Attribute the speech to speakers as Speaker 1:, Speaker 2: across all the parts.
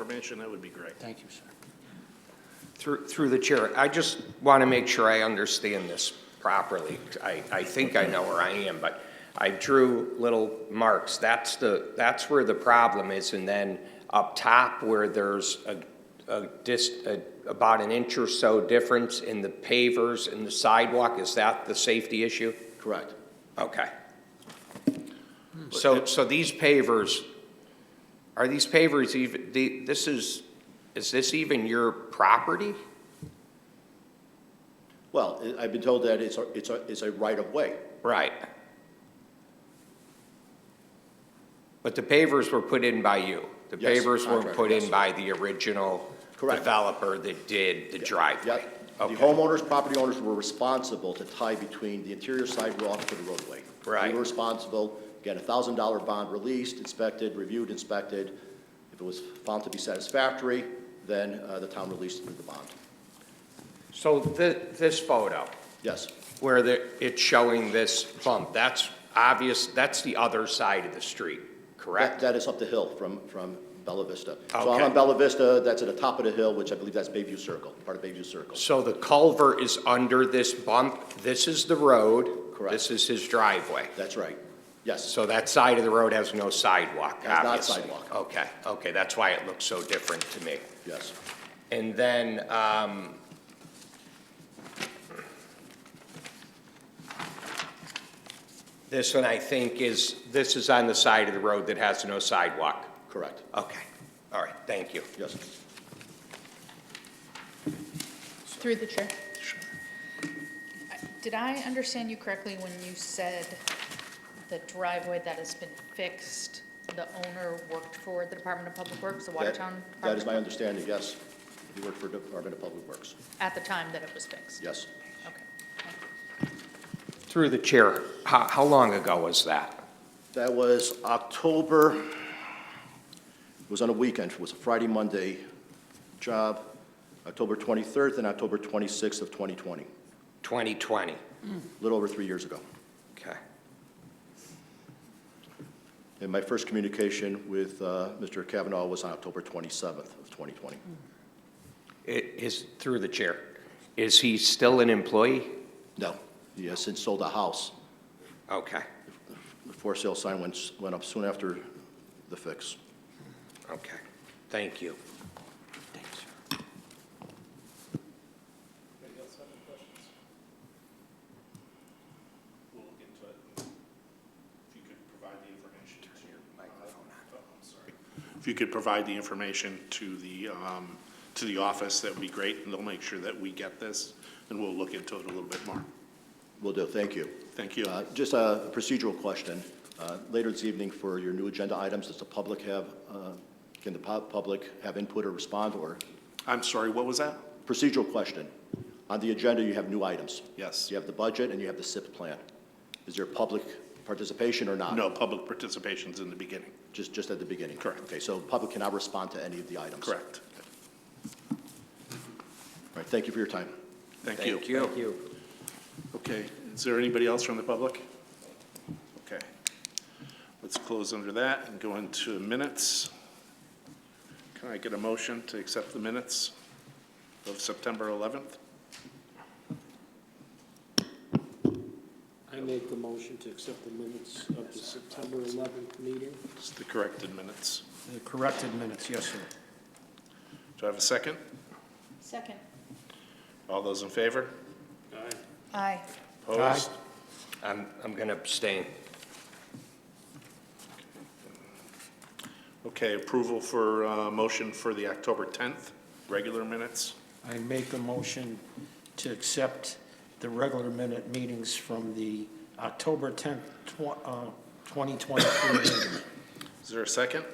Speaker 1: information, that would be great.
Speaker 2: Thank you, sir.
Speaker 3: Through, through the chair, I just want to make sure I understand this properly. I, I think I know where I am, but I drew little marks. That's the, that's where the problem is, and then up top where there's a, a dis, a- about an inch or so difference in the pavers and the sidewalk, is that the safety issue?
Speaker 4: Correct. Hmm.
Speaker 3: Okay. So, so these pavers, are these pavers even, the- this is, is this even your property?
Speaker 4: Well, I- I've been told that it's a, it's a, it's a right-of-way.
Speaker 3: Right. But the pavers were put in by you. The
Speaker 4: Yes,
Speaker 3: pavers weren't
Speaker 4: contractor,
Speaker 3: put in
Speaker 4: yes.
Speaker 3: by the original
Speaker 4: Correct.
Speaker 3: developer that did the driveway.
Speaker 4: Yep. The
Speaker 3: Okay.
Speaker 4: homeowners, property owners were responsible to tie between the interior sidewalk to the roadway.
Speaker 3: Right.
Speaker 4: They were responsible, Again, a thousand dollar bond released, inspected, reviewed, inspected. If it was found to be satisfactory, then uh, the town released the bond.
Speaker 3: So thi- this photo,
Speaker 4: Yes,
Speaker 3: where the, it's showing this bump, that's obvious, that's the other side of the street,
Speaker 4: that,
Speaker 3: correct?
Speaker 4: that is up the hill from, from Bella Vista. So I'm
Speaker 3: Okay.
Speaker 4: on Bella Vista, that's at the top of the hill, which I believe that's Bayview Circle, part of Bayview Circle.
Speaker 3: So the culvert is under this bump, this is the road.
Speaker 4: Correct.
Speaker 3: This is his driveway.
Speaker 4: That's right, yes.
Speaker 3: So that side of the road has no sidewalk,
Speaker 4: Has not
Speaker 3: obviously?
Speaker 4: sidewalk.
Speaker 3: Okay, okay, that's why it looks so different to me.
Speaker 4: Yes.
Speaker 3: And then, um, this one, I think, is, this is on the side of the road that has no sidewalk.
Speaker 4: Correct.
Speaker 3: Okay, all right, thank you.
Speaker 4: Yes.
Speaker 5: Through the chair. Did I understand you correctly when you said the driveway that has been fixed, the owner worked for the Department of Public Works, the
Speaker 4: That-
Speaker 5: Watertown?
Speaker 4: That is my
Speaker 5: Department of Public-
Speaker 4: understanding, yes. He worked for Department of Public Works,
Speaker 5: At the time that it was fixed?
Speaker 4: yes.
Speaker 5: Okay.
Speaker 3: Through the chair, how, how long ago was that?
Speaker 4: That was October, it was on a weekend, it was a Friday, Monday job, October 23rd and October 26th of 2020,
Speaker 3: 2020?
Speaker 4: a little over three years ago.
Speaker 3: Okay.
Speaker 4: And my first communication with uh, Mr. Kavanaugh was on October 27th of 2020.
Speaker 3: It is, through the chair, is he still an employee?
Speaker 4: No, he has since sold the house.
Speaker 3: Okay,
Speaker 4: The for-sale sign went went up soon after the fix.
Speaker 3: okay, thank you.
Speaker 2: Thank you, sir.
Speaker 6: Anybody else have any questions? We'll look into it. If you could provide the information to. your microphone on. I'm sorry. If you could provide the information to the, um, to the office, that would be great, and they'll make sure that we get this, and we'll look into it a little bit more.
Speaker 4: Will do, thank you.
Speaker 6: Thank you.
Speaker 4: Uh, Just a procedural question. Uh, Later this evening for your new agenda items, does the public have, uh, can the pub- public have input or respond, or
Speaker 6: I'm sorry, what was that?
Speaker 4: procedural question? On the agenda, you have new items.
Speaker 6: Yes.
Speaker 4: You have the budget and you have the SIP plan. Is there public participation or not?
Speaker 6: No, public participation's in the beginning.
Speaker 4: Just, just at the beginning?
Speaker 6: Correct.
Speaker 4: Okay, so public cannot respond to any of the items?
Speaker 6: Correct.
Speaker 4: All right, thank you for your time.
Speaker 6: Thank you.
Speaker 3: Thank you.
Speaker 6: Okay, is there anybody else from the public? Okay. Let's close under that and go into minutes. Can I get a motion to accept the minutes of September 11th?
Speaker 7: I make the motion to accept the minutes of the September 11th meeting.
Speaker 6: It's the corrected minutes.
Speaker 2: The corrected minutes, yes, sir.
Speaker 6: Do I have a second?
Speaker 5: Second.
Speaker 6: All those in favor?
Speaker 5: Aye.
Speaker 6: Opposed?
Speaker 3: I'm, I'm going to abstain.
Speaker 6: Okay, approval for, uh, motion for the October 10th, regular minutes.
Speaker 2: I make a motion to accept the regular minute meetings from the October 10th, tw- uh, 2023 meeting.
Speaker 6: Is there a second?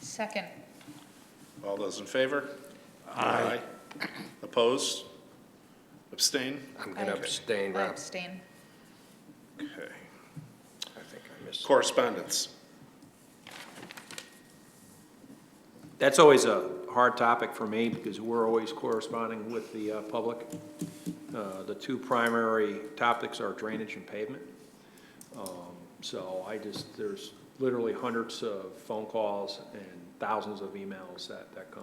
Speaker 5: Second.
Speaker 6: All those in favor? Aye. Opposed? Abstain?
Speaker 3: I'm going to
Speaker 5: I-
Speaker 3: abstain,
Speaker 5: I
Speaker 3: Rob.
Speaker 5: abstain.
Speaker 6: Okay.
Speaker 3: I think I missed.
Speaker 6: Correspondence.
Speaker 8: That's always a hard topic for me because we're always corresponding with the uh, public. Uh, The two primary topics are drainage and pavement. Um, So I just, there's literally hundreds of phone calls and thousands of emails that, that come